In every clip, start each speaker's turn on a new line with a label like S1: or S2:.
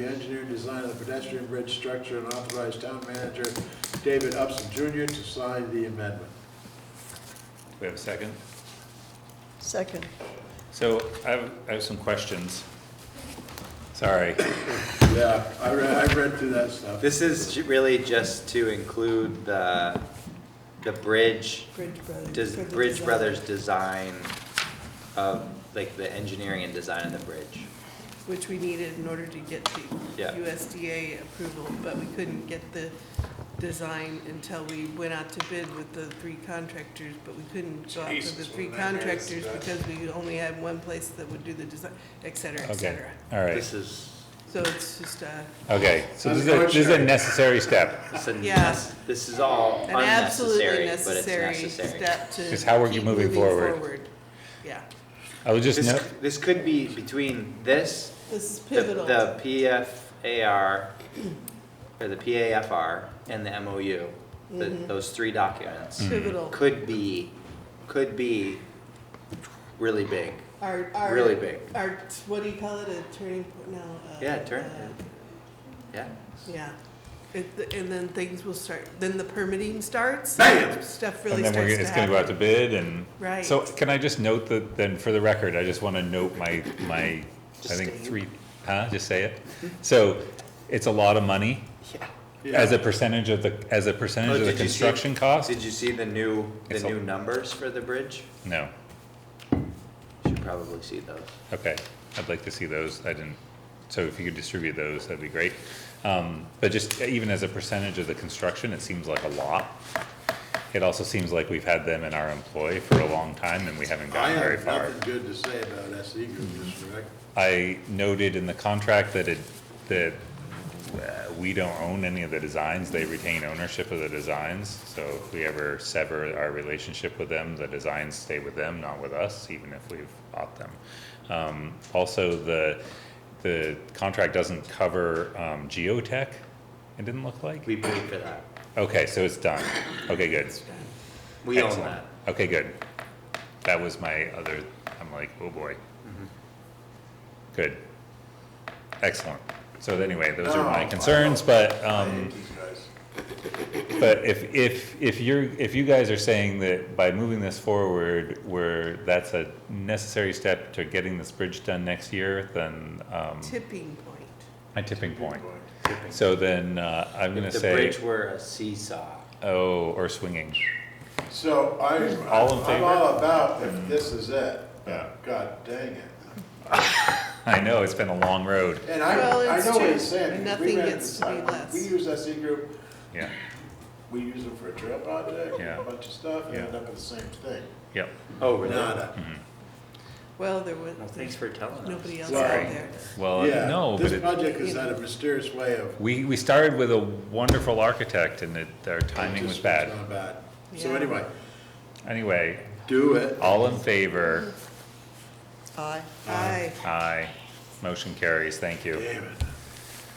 S1: The engineer design of the pedestrian bridge structure and authorize town manager David Upson Jr. to sign the amendment.
S2: We have a second?
S3: Second.
S2: So I have, I have some questions. Sorry.
S1: Yeah, I read, I read through that stuff.
S4: This is ju- really just to include the, the bridge,
S3: Bridge Brothers.
S4: does Bridge Brothers design of, like, the engineering and design of the bridge.
S5: which we needed in order to get the
S4: Yeah.
S5: USDA approval, but we couldn't get the design until we went out to bid with the three contractors, but we couldn't go out to the
S1: Jesus,
S5: three
S1: what a nightmare this
S5: contractors
S1: is.
S5: because we only had one place that would do the design, et cetera, et
S2: Okay,
S5: cetera.
S2: all
S4: This
S2: right.
S4: is,
S5: So it's just uh, a,
S2: Okay, so this is a, this is a necessary step.
S4: this is,
S5: Yeah.
S4: nes- this is all
S5: an absolutely
S4: unnecessary, but it's
S5: necessary
S4: necessary.
S5: step to
S2: Because how are you
S5: keep
S2: moving forward?
S5: Yeah,
S2: I was just,
S4: This,
S2: no-
S4: c- this could be between this,
S5: this is
S4: the-
S5: pivotal.
S4: the PFAR, or the PAFR and the MOU, the-
S5: Mm-hmm.
S4: those three documents.
S2: Mm-hmm. Hmm.
S5: Pivotal.
S4: could be, could be really big.
S5: Our, our.
S4: really big.
S5: Our, what do you call it, a turning point now? uh,
S4: Yeah, turn-
S5: uh,
S4: Yeah.
S5: Yeah, It- and then things will start, then the permitting starts.
S1: Bam!
S5: Stuff really
S2: and then
S5: starts
S2: we're,
S5: to happen.
S2: gonna- it's gonna go out to bid and.
S5: Right.
S2: So can I just note that, then for the record, I just wanna note my, my, I
S4: Just
S2: think
S4: say it.
S2: three, huh, just say it. So it's a lot of money
S4: Yeah.
S2: as a percentage of the, as a
S4: Oh,
S2: percentage of the construction cost?
S4: Did you see the new, the
S2: It's a-
S4: new numbers for the bridge?
S2: No,
S4: Should probably see those.
S2: okay. I'd like to see those. I didn't, so if you could distribute those, that'd be great. Um, but just even as a percentage of the construction, it seems like a lot. It also seems like we've had them in our employ for a long time and we haven't
S1: I
S2: gotten very
S1: have
S2: far. Mm-hmm.
S1: nothing good to say about SE Group, Mr. Rec.
S2: I noted in the contract that it, that uh, we don't own any of the designs, they retain ownership of the designs. So if we ever sever our relationship with them, the designs stay with them, not with us, even if we've bought them. Um, also, the, the contract doesn't cover, um, geotech, it didn't look like?
S4: We paid for that.
S2: Okay, so it's done. Okay, good.
S4: We own
S2: Excellent.
S4: that.
S2: Okay, good. That was my other, I'm like, oh boy. Good. Excellent. So anyway, those are my
S1: Oh,
S2: concerns, but,
S1: I
S2: um,
S1: hate these guys.
S2: but if, if, if you're, if you guys are saying that by moving this forward, where that's a necessary step to getting this bridge done next year, then, um,
S5: Tipping point.
S2: my tipping point. So then, uh, I'm gonna
S4: If the
S2: say,
S4: bridge were a seesaw.
S2: oh, or swinging.
S1: So I,
S2: All in
S1: I'm
S2: favor? Mm-hmm.
S1: all about if this is it.
S2: Yeah.
S1: God dang it.
S2: I know, it's been a long road.
S1: And I,
S5: Well,
S1: I
S5: it's
S1: know what
S5: true.
S1: he's saying. 'cause we
S5: Nothing
S1: ran-
S5: gets to be less.
S1: We use SE Group,
S2: Yeah,
S1: we use them for a trail project,
S2: Yeah.
S1: a bunch of stuff, you
S2: Yeah.
S1: end up with the same thing.
S2: yep.
S4: Oh, really?
S1: Nada.
S5: Well, there was,
S4: No, thanks for telling us.
S5: nobody else out
S1: Sorry.
S5: there.
S2: Well,
S1: Yeah,
S2: no, but
S1: This
S2: it,
S1: project has had a mysterious way of.
S2: We, we started with a wonderful architect and it, our timing was
S1: Just
S2: bad.
S1: not bad. So
S5: Yeah.
S1: anyway,
S2: Anyway,
S1: do it.
S2: all in favor?
S3: Aye.
S5: Aye,
S2: Aye. Motion carries. Thank you.
S1: Damn it,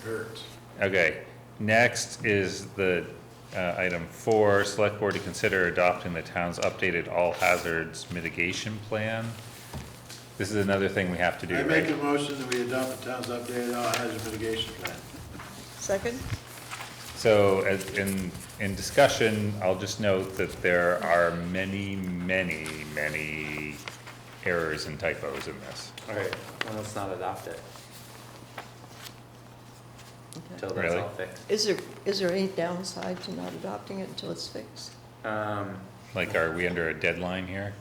S1: hurts.
S2: Okay, next is the, uh, item four, select board to consider adopting the town's updated all hazards mitigation plan. This is another thing we have to do,
S1: I make a
S2: right?
S1: motion that we adopt the town's updated all hazard mitigation plan.
S3: Second?
S2: So as, in, in discussion, I'll just note that there are many, many, many errors and typos in this.
S4: All right, well, let's not adopt it. Till that's
S2: Really?
S4: all fixed.
S3: Is there, is there any downside to not adopting it until it's fixed?
S4: Um,
S2: Like, are we under a deadline here?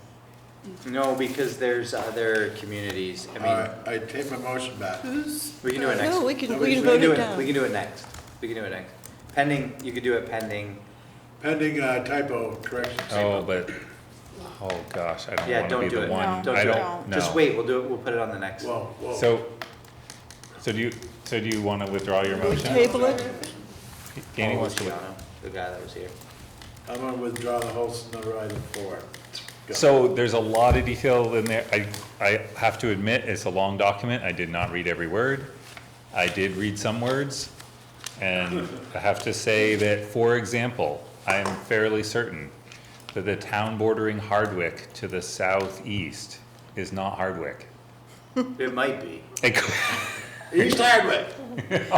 S4: no, because there's other communities, I
S1: All
S4: mean,
S1: right, I take my motion back.
S5: who's,
S4: we can do it next.
S3: No, we can,
S1: We
S3: we can
S1: can
S3: vote
S4: do
S3: it down.
S4: We can do it next, we can do it next. Pending, you could do it pending,
S1: Pending uh, typo correction.
S2: Oh, but, oh gosh, I
S4: Yeah,
S2: don't
S4: don't
S2: wanna be
S4: do
S2: the
S4: it.
S2: one,
S4: No, don't
S2: I
S4: do it.
S2: don't, no.
S4: just wait, we'll do it, we'll put it on the next.
S1: Whoa, whoa.
S2: So, so do you, so do you wanna withdraw your
S3: We
S2: motion?
S3: Table it?
S2: Danny
S4: Oh,
S2: wants to, with-
S4: Luciano, The guy that was here.
S1: I'm gonna withdraw the whole number item four. Go.
S2: so there's a lot of detail in there, I, I have to admit, it's a long document, I did not read every word. I did read some words, and I have to say that, for example, I am fairly certain that the town bordering Hardwick to the southeast is not Hardwick.
S4: It might be,
S2: It cou-
S1: East Hardwick.